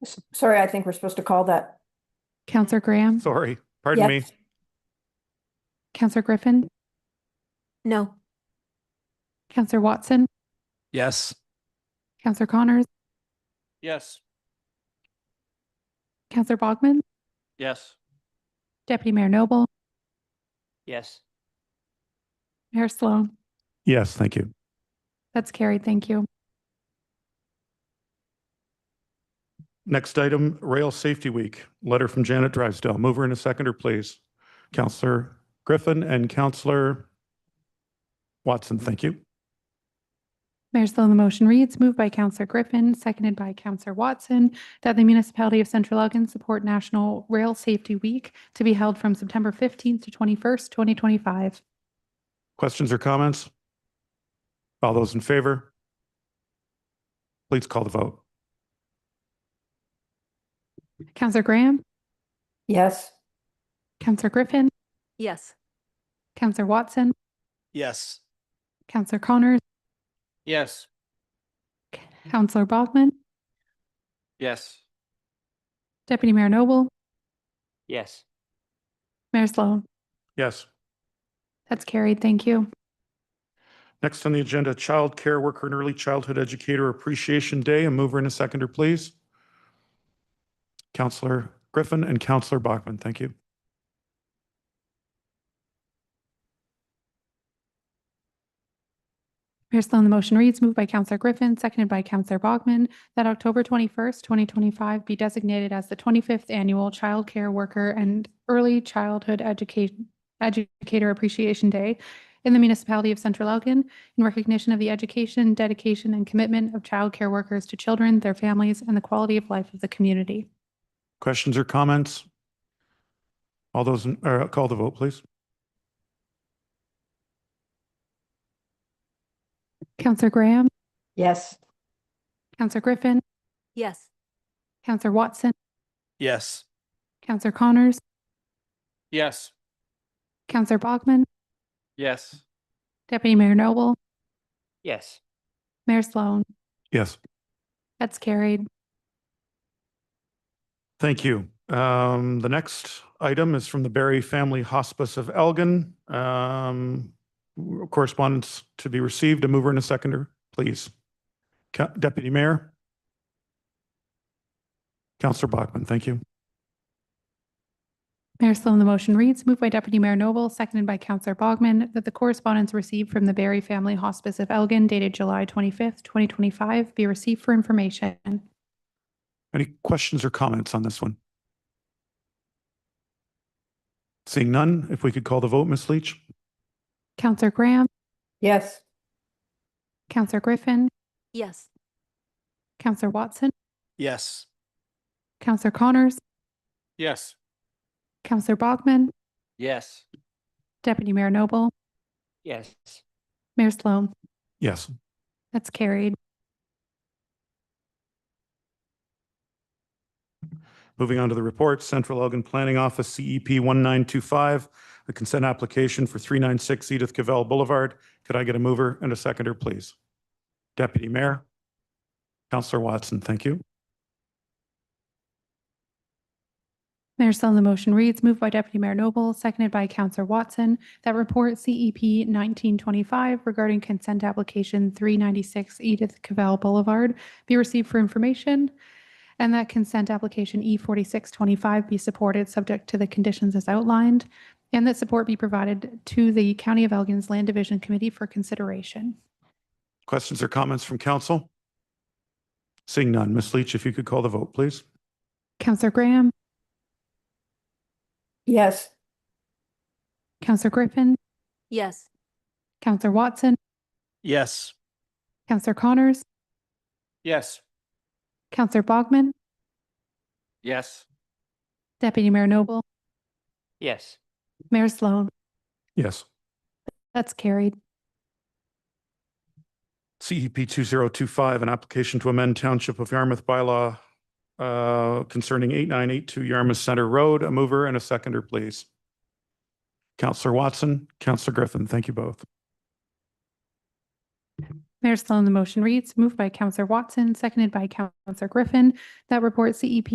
S- Sorry, I think we're supposed to call that. Counselor Graham, Sorry, pardon me. Yes. Counselor Griffin, No. Counselor Watson, Yes. Counselor Connors, Yes. Counselor Bogman, Yes. Deputy Mayor Noble, Yes. Mayor Sloan. Yes, thank you. That's carried. Thank you. Next item, Rail Safety Week, letter from Janet Drysdale. Mover and a seconder, please. Counselor Griffin and Counselor Watson, thank you. Mayor Sloan, the motion reads, moved by Counselor Griffin, seconded by Counselor Watson, that the municipality of Central Elgin support National Rail Safety Week to be held from September 15th to 21st, 2025. Questions or comments? All those in favor? Please call the vote. Counselor Graham, Yes, Counselor Griffin, Yes. Counselor Watson, Yes. Counselor Connors, Yes. Counselor Bogman, Yes. Deputy Mayor Noble, Yes. Mayor Sloan. Yes. That's carried. Thank you. Next on the agenda, Child Care Worker and Early Childhood Educator Appreciation Day. A mover and a seconder, please. Counselor Griffin and Counselor Bachman, thank you. Mayor Sloan, the motion reads, moved by Counselor Griffin, seconded by Counselor Bogman, that October 21st, 2025 be designated as the 25th Annual Child Care Worker and Early Childhood Education Educator Appreciation Day in the municipality of Central Elgin in recognition of the education, dedication, and commitment of child care workers to children, their families, and the quality of life of the community. Questions or comments? All those, in- or call the vote, please. Counselor Graham, yes, Counselor Griffin, Yes. Counselor Watson, Yes. Counselor Connors, Yes. Counselor Bogman, Yes. Deputy Mayor Noble, Yes. Mayor Sloan. Yes, That's carried. thank you. Um, The next item is from the Berry Family Hospice of Elgin. Um, Correspondence to be received, a mover and a seconder, please. Ca- Deputy Mayor? Counselor Bachman, thank you. Mayor Sloan, the motion reads, moved by Deputy Mayor Noble, seconded by Counselor Bogman, that the correspondence received from the Barry Family Hospice of Elgin dated July 25th, 2025 be received for information. Any questions or comments on this one? Seeing none, if we could call the vote, Ms. Leach? Counselor Graham, yes, Counselor Griffin, Yes. Counselor Watson, Yes. Counselor Connors, Yes. Counselor Bogman, Yes. Deputy Mayor Noble, Yes. Mayor Sloan. Yes. That's carried. Moving on to the report, Central Elgin Planning Office, E CEP 1925, the consent application for 396 Edith Cavell Boulevard. Could I get a mover and a seconder, please? Deputy Mayor? Counselor Watson, thank you. Mayor Sloan, the motion reads, moved by Deputy Mayor Noble, seconded by Counselor Watson, that report E CEP 1925 regarding consent application 396 Edith Cavell Boulevard be received for information, and that consent application E4625 be supported, subject to the conditions as outlined, and that support be provided to the County of Elgin's Land Division Committee for consideration. Questions or comments from council? Seeing none, Ms. Leach, if you could call the vote, please. Counselor Graham, yes, Counselor Griffin, Yes. Counselor Watson, Yes. Counselor Connors, Yes. Counselor Bogman, Yes. Deputy Mayor Noble, Yes. Mayor Sloan. Yes. That's carried. CEP 2025, an application to amend Township of Yarmouth bylaw uh, concerning 8982 Yarmouth Center Road. A mover and a seconder, please. Counselor Watson, Counselor Griffin, thank you both. Mayor Sloan, the motion reads, moved by Counselor Watson, seconded by Counselor Griffin, that report E CEP